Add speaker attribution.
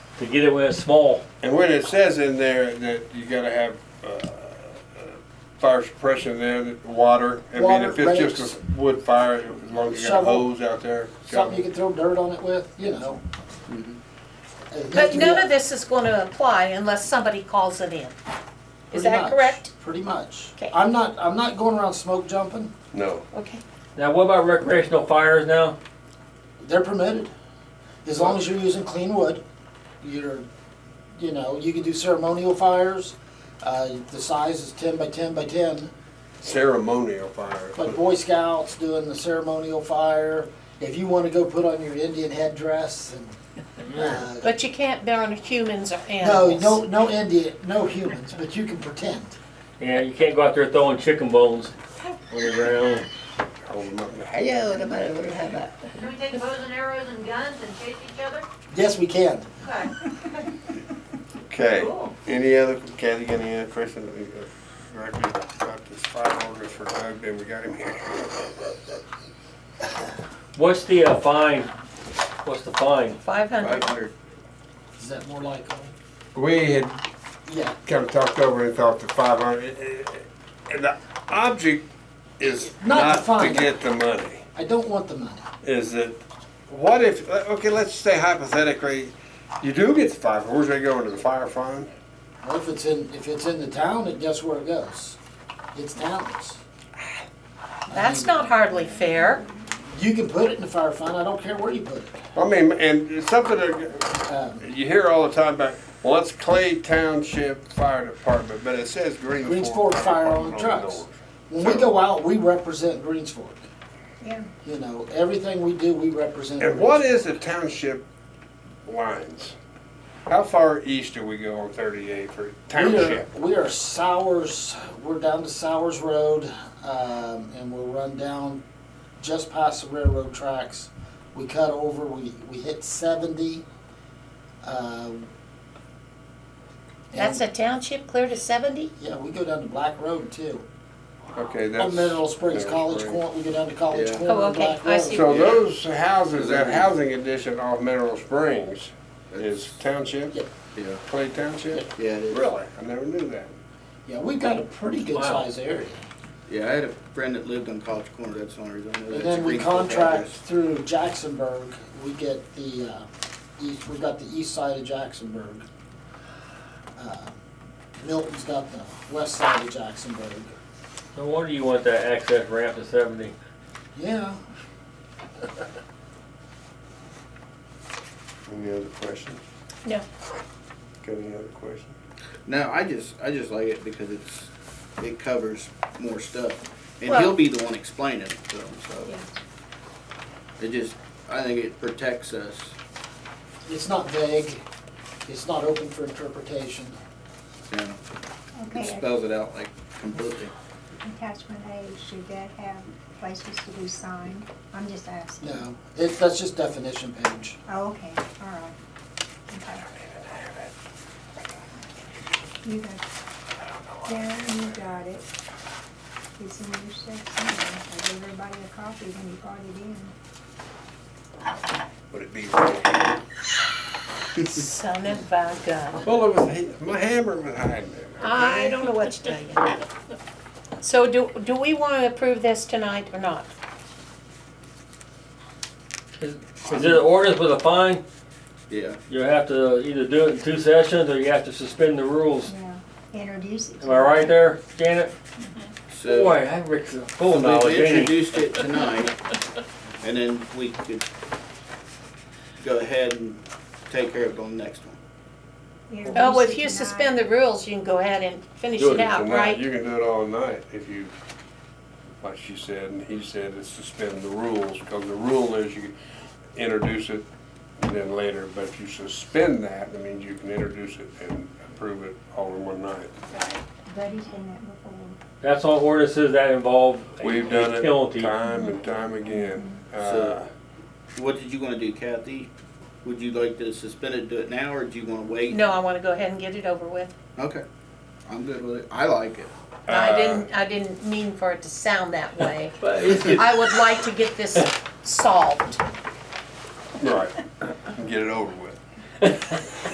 Speaker 1: to get it when it's small.
Speaker 2: And when it says in there that you gotta have, uh, uh, fire suppression there, that water, I mean,
Speaker 3: Water,
Speaker 2: if it's just
Speaker 3: rakes.
Speaker 2: a wood fire, as long as you got a
Speaker 3: Shovel.
Speaker 2: hose out there.
Speaker 3: Something you can throw dirt on it with, you know. It has
Speaker 4: But
Speaker 3: to be
Speaker 4: none of this is gonna apply unless somebody calls it in. Is
Speaker 3: pretty
Speaker 4: that
Speaker 3: much,
Speaker 4: correct?
Speaker 3: Pretty much.
Speaker 4: Okay.
Speaker 3: I'm not, I'm not going around smoke jumping.
Speaker 2: No,
Speaker 4: Okay.
Speaker 1: Now, what about recreational fires now?
Speaker 3: They're permitted. As long as you're using clean wood, you're, you know, you can do ceremonial fires. Uh, the size is ten by ten by ten.
Speaker 2: ceremonial fire.
Speaker 3: Like Boy Scouts doing the ceremonial fire. If you want to go put on your Indian headdress and, uh,
Speaker 4: But you can't burn humans or
Speaker 3: no,
Speaker 4: animals.
Speaker 3: no, no Indian, no humans, but you can pretend.
Speaker 1: Yeah, you can't go out there throwing chicken bones on the ground.
Speaker 2: Hold 'em up.
Speaker 5: Hello, nobody would have that.
Speaker 6: Can we take bows and arrows and guns and chase each other?
Speaker 3: Yes, we can.
Speaker 6: Okay.
Speaker 2: Okay,
Speaker 6: Cool.
Speaker 2: any other, Kathy, got any other questions? Uh, Directly about this fire orders for Doug, then we got him here.
Speaker 1: What's the uh, fine? What's the fine?
Speaker 4: Five hundred.
Speaker 2: Five hundred.
Speaker 3: Is that more uh, likely?
Speaker 2: We had
Speaker 3: Yeah.
Speaker 2: kind of talked over and thought the five hundred, and the object is
Speaker 3: Not to
Speaker 2: not to
Speaker 3: find it.
Speaker 2: get the money.
Speaker 3: I don't want the money.
Speaker 2: Is that, what if, uh, okay, let's say hypothetically, you do get the five, where's they go into the fire fund?
Speaker 3: Well, if it's in, if it's in the town, it guess where it goes? It's towns.
Speaker 4: That's not hardly fair.
Speaker 3: You can put it in the fire fund, I don't care where you put it.
Speaker 2: I mean, and it's something that
Speaker 3: Um,
Speaker 2: you hear all the time about, well, it's Clay Township Fire Department, but it says Green Fork.
Speaker 3: Greens Fork Fire on
Speaker 2: Department
Speaker 3: trucks.
Speaker 2: door.
Speaker 3: When we go out, we represent Greens Fork.
Speaker 4: Yeah.
Speaker 3: You know, everything we do, we represent.
Speaker 2: And what
Speaker 3: Greens
Speaker 2: is the township lines? How far east do we go on thirty-eight for
Speaker 3: Fork. We are-
Speaker 2: township?
Speaker 3: We are Sowers, we're down to Sowers Road, um, and we'll run down just past the railroad tracks. We cut over, we, we hit seventy. um,
Speaker 4: That's
Speaker 3: and-
Speaker 4: a township clear to seventy?
Speaker 3: Yeah, we go down to Black Road too.
Speaker 2: Okay, that's.
Speaker 3: On Mineral Springs,
Speaker 2: Mineral
Speaker 3: College
Speaker 2: Springs.
Speaker 3: Corner, we go down to College
Speaker 5: Yeah.
Speaker 3: Corner,
Speaker 4: Oh,
Speaker 3: on
Speaker 4: okay,
Speaker 3: Black
Speaker 4: I
Speaker 3: Road.
Speaker 4: see.
Speaker 2: So those houses, that housing addition off Mineral Springs is township,
Speaker 5: Yeah,
Speaker 2: Clay Township?
Speaker 5: yeah, it is.
Speaker 2: Really? I never knew that.
Speaker 3: Yeah, we've got a pretty good
Speaker 1: Wow.
Speaker 3: sized area.
Speaker 5: Yeah, I had a friend that lived on College Corner, that's the only reason I know that.
Speaker 3: And
Speaker 5: It's a
Speaker 3: then we
Speaker 5: Greenfield
Speaker 3: contract
Speaker 5: address.
Speaker 3: through Jacksonburg, we get the, uh, east, we've got the east side of Jacksonburg. Uh, Milton's got the west side of Jacksonburg.
Speaker 1: No wonder you want that access ramp to 70.
Speaker 3: Yeah,
Speaker 2: Any other questions?
Speaker 4: No.
Speaker 2: Got any other questions?
Speaker 5: No, I just, I just like it because it's, it covers more stuff. And
Speaker 4: Well-
Speaker 5: he'll be the one explaining it to them, so.
Speaker 4: Yeah.
Speaker 5: It just, I think it protects us.
Speaker 3: it's not vague, it's not open for interpretation.
Speaker 5: you know. It
Speaker 7: Okay,
Speaker 5: spells it out like completely.
Speaker 7: attachment A, should that have places to be signed? I'm just asking.
Speaker 3: No, it, that's just definition page.
Speaker 7: Oh, okay, all right. Okay. You got, Darren, you got it. It's in your section, I gave everybody a copy when you brought it in.
Speaker 2: Would it be right?
Speaker 4: Son of a gun.
Speaker 2: Well, it was, he- my hammer was hiding there.
Speaker 4: I don't know what to tell you. So do, do we wanna approve this tonight or not?
Speaker 1: Is there an ordinance with a fine?
Speaker 5: Yeah,
Speaker 1: You have to either do it in two sessions or you have to suspend the rules.
Speaker 7: Yeah, introduce it.
Speaker 1: Am I right there, Janet?
Speaker 5: so.
Speaker 1: Boy, I Rick's a full of knowledge,
Speaker 5: We've
Speaker 1: ain't he?
Speaker 5: introduced it tonight, and then we could go ahead and take care of it on the next one.
Speaker 7: Introduce
Speaker 4: Oh,
Speaker 7: it
Speaker 4: if you
Speaker 7: tonight.
Speaker 4: suspend the rules, you can go ahead and finish
Speaker 2: Do
Speaker 4: it out,
Speaker 2: tonight.
Speaker 4: right?
Speaker 2: You can do it all night if you, like she said, and he said, is suspend the rules, because the rule is you introduce it and then later, but if you suspend that, I mean, you can introduce it and approve it all in one night.
Speaker 7: Buddy's done that before.
Speaker 1: That's all ordinances that involve a
Speaker 2: We've done
Speaker 1: a
Speaker 2: it
Speaker 1: penalty.
Speaker 2: time and time again. Uh,
Speaker 5: So- Uh, What did you wanna do, Kathy? Would you like to suspend it, do it now, or do you wanna wait?
Speaker 4: No, I wanna go ahead and get it over with.
Speaker 5: Okay, I'm good with it. I like it.
Speaker 2: uh,
Speaker 4: I didn't, I didn't mean for it to sound that way.
Speaker 1: But it's good.
Speaker 4: I would like to get this solved.
Speaker 2: Right, get it over with.